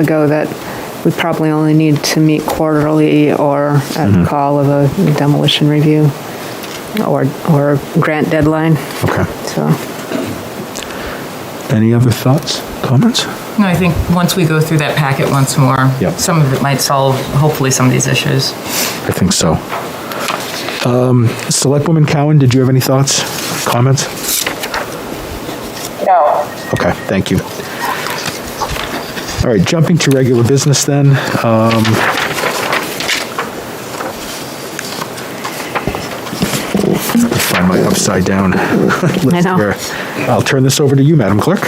ago that we probably only need to meet quarterly or at call of a demolition review or, or grant deadline, Okay. so. Any other thoughts, comments? No, I think once we go through that packet once more, Yep. some of it might solve, hopefully, some of these issues. I think so. Um, Selectwoman Cowan, did you have any thoughts, comments? No, Okay, thank you. All right, jumping to regular business then. um, let me Find my upside down. I know. I'll turn this over to you, Madam Clerk.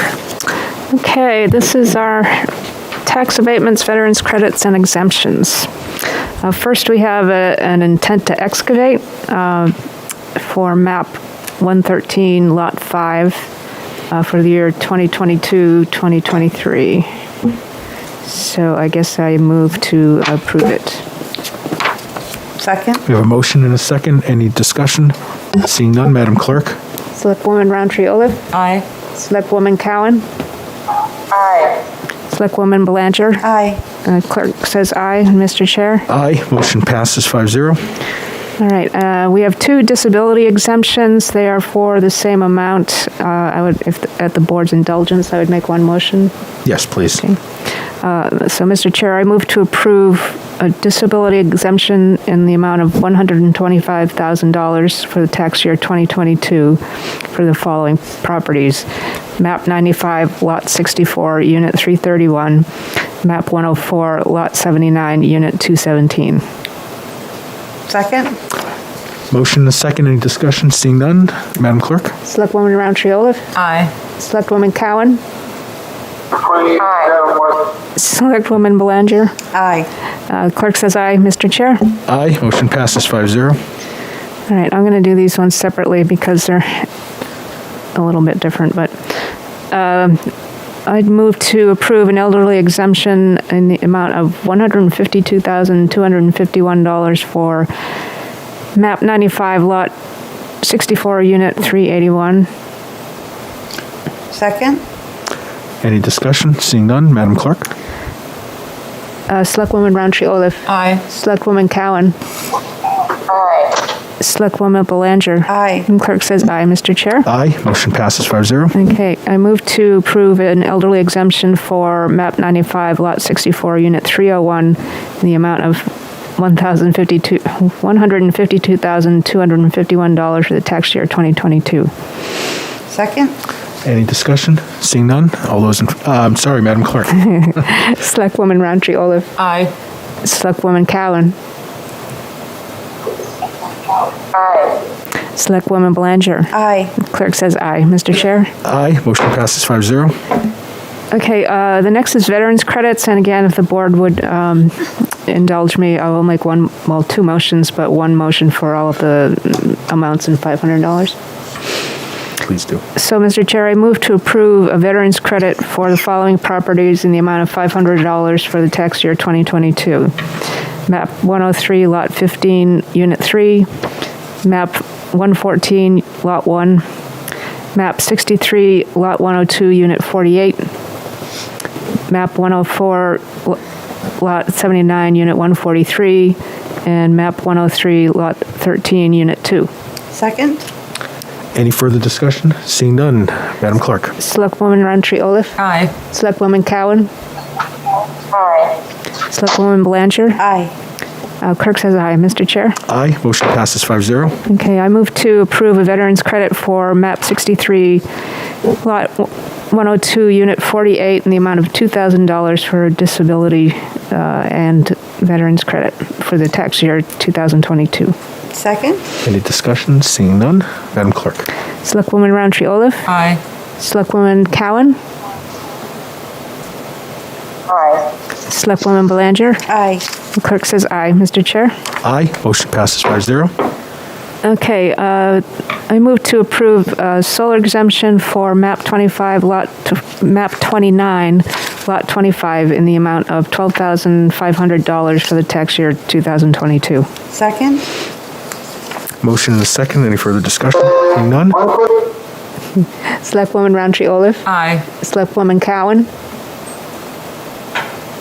Okay, this is our tax abatements, veterans credits, and exemptions. Uh, First, we have a- an intent to excavate uh, for map 113, lot 5, uh, for the year 2022, 2023. So I guess I move to approve it. Second? We have a motion and a second. Any discussion? Seeing none, Madam Clerk? Selectwoman Roundtree Olaf? Aye. Selectwoman Cowan? Aye. Selectwoman Belanger? Aye. Uh, Clerk says aye, Mr. Chair. Aye. Motion passes 5-0. All right, uh, we have two disability exemptions. They are for the same amount. Uh, I would, if, at the board's indulgence, I would make one motion. Yes, please. Uh, So, Mr. Chair, I move to approve a disability exemption in the amount of $125,000 for the tax year 2022 for the following properties. MAP 95, Lot 64, Unit 331. MAP 104, Lot 79, Unit 217. Second? Motion and a second. Any discussion? Seeing none, Madam Clerk? Selectwoman Roundtree Olaf? Aye. Selectwoman Cowan? 28 Dedham West, Selectwoman Belanger. Aye. Uh, Clerk says aye, Mr. Chair. Aye. Motion passes 5-0. All right, I'm going to do these ones separately because they're a little bit different, but um, I'd move to approve an elderly exemption in the amount of $152,251 for MAP 95, Lot 64, Unit 381. Second? Any discussion? Seeing none, Madam Clerk? Uh, Selectwoman Roundtree Olaf. Aye. Selectwoman Cowan. Selectwoman Belanger. Aye. And clerk says aye, Mr. Chair. Aye. Motion passes 5-0. Okay, I move to approve an elderly exemption for MAP 95, Lot 64, Unit 301, in the amount of 1052 $152,251 for the tax year 2022. Second? Any discussion? Seeing none, all those in, uh, I'm sorry, Madam Clerk. Selectwoman Roundtree Olaf. Aye. Selectwoman Cowan. Selectwoman Belanger. Aye. Clerk says aye. Mr. Chair? Aye. Motion passes 5-0. Okay, uh, the next is veterans credits, and again, if the board would um, indulge me, I will make one, well, two motions, but one motion for all of the mm, amounts in $500. Please do. So, Mr. Chair, I move to approve a veterans credit for the following properties in the amount of $500 for the tax year 2022. MAP 103, Lot 15, Unit 3, MAP 114, Lot 1, MAP 63, Lot 102, Unit 48, map 104, lo- lot 79, unit 143, and map 103, lot 13, unit 2. Second? Any further discussion? Seeing none, Madam Clerk? Selectwoman Roundtree Olaf. Aye. Selectwoman Cowan. Selectwoman Blanchard. Aye. Uh, Clerk says aye. Mr. Chair? Aye. Motion passes 5-0. Okay, I move to approve a veteran's credit for MAP 63, Lot 102, Unit 48, in the amount of $2,000 for disability uh, and veteran's credit for the tax year 2022. Second? Any discussion? Seeing none, Madam Clerk? Selectwoman Roundtree Olaf. Aye. Selectwoman Cowan. Selectwoman Belanger. Aye. The Clerk says aye, Mr. Chair. Aye. Motion passes 5-0. Okay, uh, I move to approve uh, solar exemption for MAP 25, Lot, tw- MAP 29, Lot 25, in the amount of $12,500 for the tax year 2022. Second? Motion and a second. Any further discussion? Seeing none? Selectwoman Roundtree Olaf. Aye. Selectwoman Cowan.